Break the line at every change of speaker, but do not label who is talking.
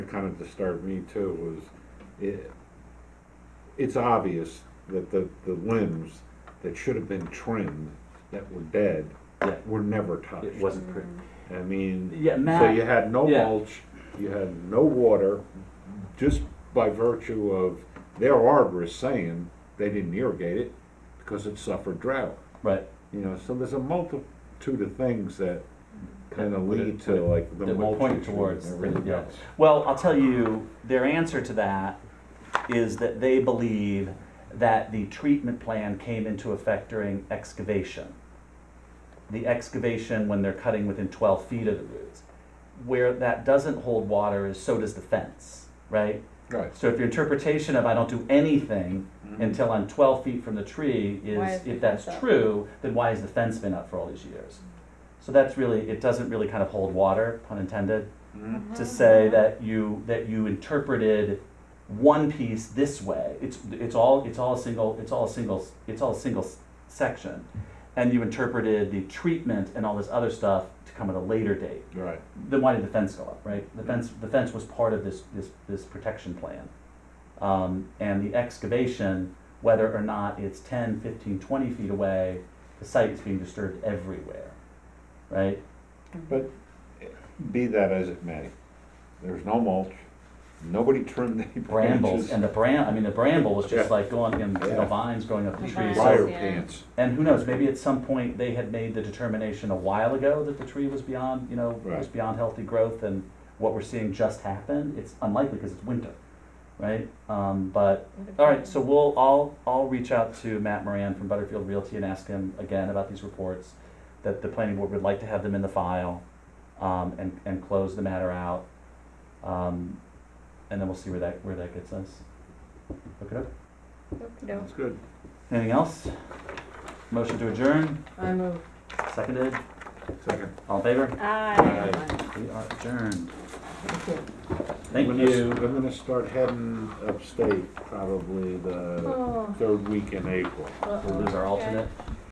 kind of disturbed me too was it, it's obvious that the, the limbs that should have been trimmed that were dead
Yeah.
were never touched.
It wasn't pretty.
I mean,
Yeah, Matt.
so you had no
yeah.
mulch, you had no water, just by virtue of their arborists saying they didn't irrigate it because it suffered drought.
Right.
You know, so there's a multitude of things that kind of
Would it-
lead to like the
that will
mulch
point
issue
towards
and
the-
everything
yeah.
else.
Well, I'll tell you, their answer to that is that they believe that the treatment plan came into effect during excavation. The excavation when they're cutting within twelve feet of the roots. Where that doesn't hold water is so does the fence, right?
Right.
So if your interpretation of I don't do anything until I'm twelve feet from the tree
Why is
is,
the
if that's
fence up?
true, then why has the fence been up for all these years? So that's really, it doesn't really kind of hold water, pun intended
Mhm.
Mm.
to say that you that you interpreted one piece this way. It's it's all it's all a single it's all a single it's all a single s- section, and you interpreted the treatment and all this other stuff to come at a later date.
Right.
Then why did the fence go up? Right, the fence the fence was part of this this this protection plan, um, and the excavation, whether or not it's 10, 15, 20 feet away, the site is being disturbed everywhere, right?
But be that as it may, there's no mulch, nobody trimmed any
brambles
branches.
and the bram I mean the bramble was just
Yeah.
like going and you know,
Yeah.
vines growing up the
The
trees.
vines.
Briar
So,
Yeah.
pants,
and who knows, maybe at some point they had made the determination a while ago that the tree was beyond, you know, was
Right.
beyond healthy growth and what we're seeing just happened. It's unlikely because it's winter, right? Um, but all right, so we'll I'll I'll reach out to Matt Moran from Butterfield Realty and ask him again about these reports that the planning board would like to have them in the file um, and and close the matter out. Um, and then we'll see where that where that gets us. Look it up.
Okey-doke.
that's good.
Anything else? Motion to adjourn.
I move.
Seconded.
Second.
All in favor?
Aye.
We are adjourned.
Okay.
Thank
I'm gonna s-
you.
I'm gonna start heading upstate probably the
Oh.
third week in April.
We'll lose our alternate.